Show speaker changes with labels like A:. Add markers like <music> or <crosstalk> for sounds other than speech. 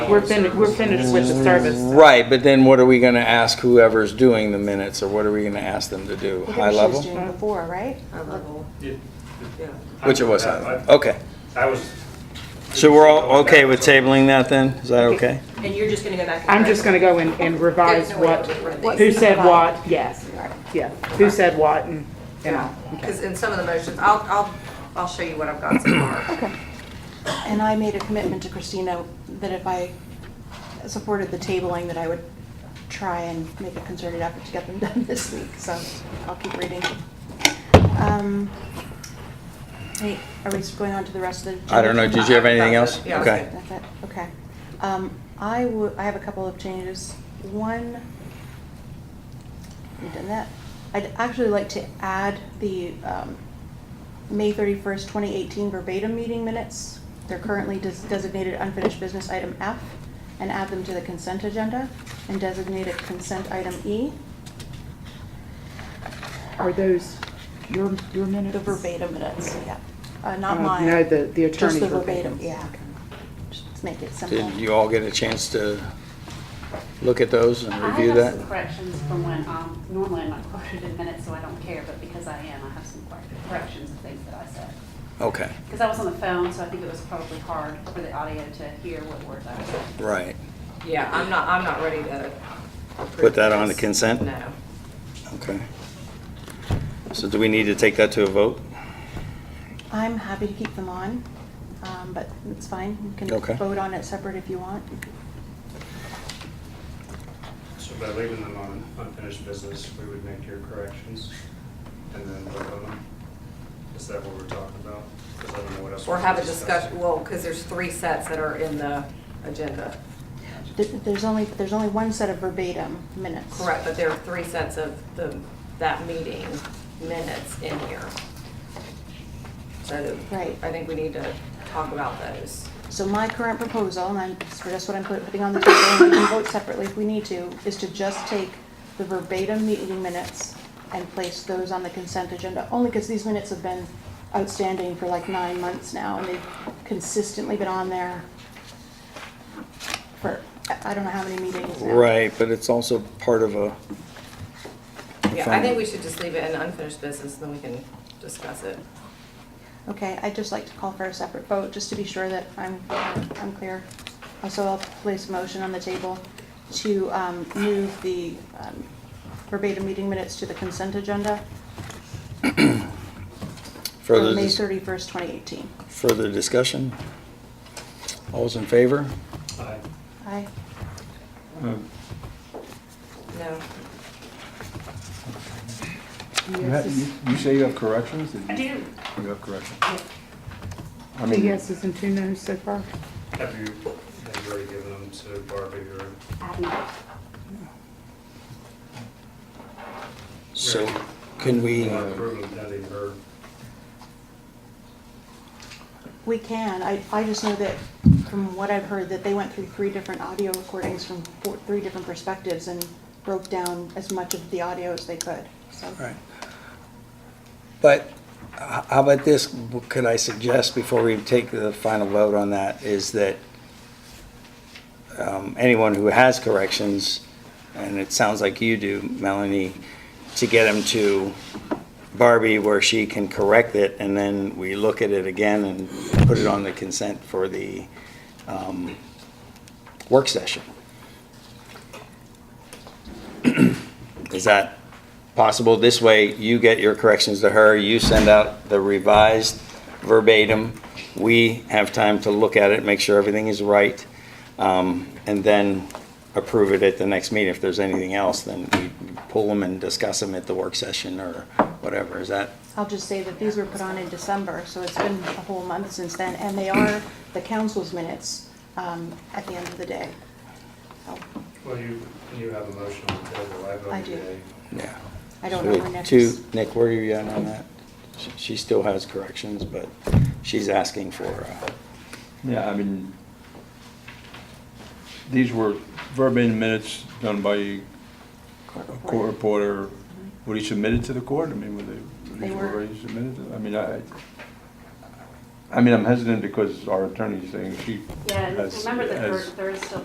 A: We're finished, we're finished with the service.
B: Right, but then what are we gonna ask whoever's doing the minutes, or what are we gonna ask them to do? High
C: Well, she was
B: level?
C: doing it Before, right?
D: It-
E: Yeah.
B: Which it was, high
D: I-
B: level. okay.
D: I was.
B: So we're all okay with tabling that then? Is that okay?
E: And you're just gonna go back and.
A: I'm just gonna go and, and revise
E: There's no way
A: what,
E: I would run
A: who
E: these.
A: said what, yes, yeah, who said what and, and all.
E: Because in some of the motions, I'll, I'll, I'll show you what I've got so far.
C: Okay. And I made a commitment to Christina that if I supported the tabling, that I would try and make a concerted effort to get them <laughs> done this week, so I'll keep reading. Um, hey, Are we going on to the rest of the?
B: I don't know, did you have anything else?
E: Yeah, I was
B: Okay.
E: good.
C: That's it, okay. Um, I would, I have a couple of changes. One, we've done that. I'd actually like to add the, um, May thirty-first, twenty eighteen verbatim meeting minutes. They're currently des- designated unfinished business item F and add them to the consent agenda and designate it consent item E,
A: Are those your, your minutes?
C: the verbatim minutes, yeah. Uh,
A: Uh,
C: not mine.
A: No, the, the
C: Just
A: attorney
C: the
A: verbatim.
C: verbatim, yeah. Just make it simple.
B: Did you all get a chance to look at those and review
F: I have some
B: that?
F: corrections from when, um, normally I'm not quoted in minutes, so I don't care, but because I am, I have some correct- corrections of things that I said.
B: Okay,
F: Because I was on the phone, so I think it was probably hard for the audio to hear what words I said.
B: right.
E: Yeah, I'm not, I'm not ready to.
B: Put that on the consent?
E: No.
B: Okay. So do we need to take that to a vote?
C: I'm happy to keep them on, um, but it's fine. You
B: Okay.
C: can vote on it separate if you want.
D: So by leaving them on unfinished business, we would make your corrections and then vote on them? Is that what we're talking about? Because I don't know what else.
E: Or
D: we're
E: have a
D: discussing.
E: discussion, well, because there's three sets that are in the agenda.
C: Th- There's only, there's only one set of verbatim minutes.
E: Correct, but there are three sets of the, that meeting minutes in here. So
C: Right.
E: I think we need to talk about those.
C: So my current proposal, and I'm, it's just what I'm put- putting on the table, and we can vote separately if we need to, is to just take the verbatim meeting minutes and place those on the consent agenda, only because these minutes have been outstanding for like nine months now, and they've consistently been on there for, I I don't know how many meetings now.
B: Right, but it's also part of a,
E: Yeah, I
B: Fine.
E: think we should just leave it in unfinished business, then we can discuss it.
C: Okay, I'd just like to call for a separate vote, just to be sure that I'm, I'm clear. Also, I'll place a motion on the table to um, move the um, verbatim meeting minutes to the consent agenda
B: further,
C: for May
B: dis-
C: 31st, 2018.
B: further discussion? All's in favor?
D: Aye.
C: Aye.
E: No,
G: You ha- You you say you have corrections? Did
F: I
G: you-
F: do,
G: You have corrections?
F: Yeah.
G: I
A: Two
G: mean,
A: yeses and two noes so far?
D: Have you, have you already given them to Barbie or?
F: I have not.
B: So can we, uh,
D: Not approving pending her.
C: We can, I, I just know that from what I've heard, that they went through three different audio recordings from four- three different perspectives and broke down as much of the audio as they could, so.
B: Right. But h- how about this, could I suggest before we take the final vote on that, is that um, anyone who has corrections, and it sounds like you do, Melanie, to get them to Barbie where she can correct it, and then we look at it again and put it on the consent for the um, work session? Is that possible? This way, you get your corrections to her, you send out the revised verbatim. We have time to look at it, make sure everything is right, um, and then approve it at the next meeting. If there's anything else, then we pull them and discuss them at the work session or whatever. Is that,
C: I'll just say that these were put on in December, so it's been a whole month since then, and they are the council's minutes um, at the end of the day. So
D: Well, you, you have a motion on the table. I
C: I
D: voted
C: do.
D: yay.
B: yeah.
C: I don't know when next
B: Two,
C: is.
B: Nick, where are you at on that? She- She still has corrections, but she's asking for, uh,
G: yeah, I mean, these were verbatim minutes done by
C: court
G: a court
C: reporter.
G: reporter. Were they submitted to the court? I mean, were they, were
C: They
G: these
C: were.
G: already submitted? to- I mean, I, I mean, I'm hesitant because our attorney's saying she
F: Yeah, and
G: has.
F: remember that there,
G: has-
F: there is still